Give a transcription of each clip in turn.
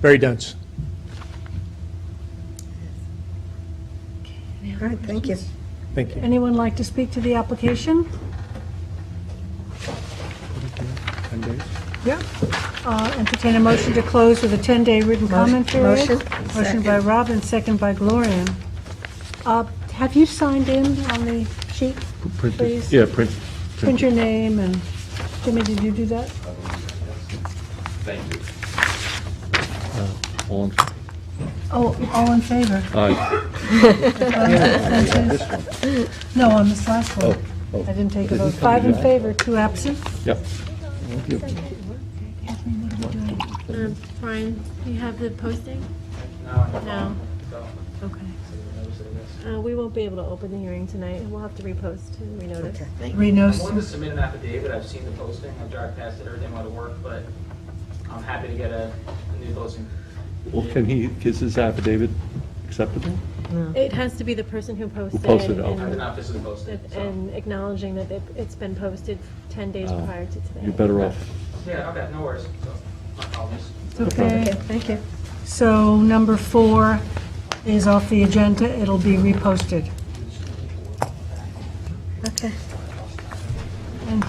Very dense. All right, thank you. Thank you. Anyone like to speak to the application? Ten days? Yeah. Uh, Entertain a motion to close with a 10-day written comment period. motion. Motion by Second. Rob and second by Gloria. Uh, Have you signed in on the sheet, please? Yeah, print. Print your name and, Jimmy, did you do that? all in- Oh, all in favor? aye. No, on this last one. oh. I didn't take a vote. Five in favor, two absent. Yep. Uh, Brian, you have the posting? No. Okay. Uh, we won't be able to open the hearing tonight. We'll have to repost and renotice. Okay. I'm willing to Renos, submit an affidavit, I've seen the posting, I've drive past it every day on my way to work, but I'm happy to get a a new posting. Well, can he, is his affidavit acceptable? It has to be the person who posted. posted it, I okay. did and- not visit the posting, and- so. And acknowledging that it- it's been posted 10 days Oh, prior to today. You're better off. Yeah, okay, no worries, so, my apologies. it's okay. Okay, thank you. So number four is off the agenda. It'll be reposted. Okay. And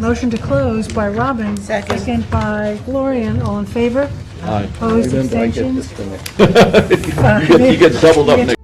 Motion to close by Robin. Second. by Gloria. All in favor? Aye. Opposed, abstentions? He gets doubled up next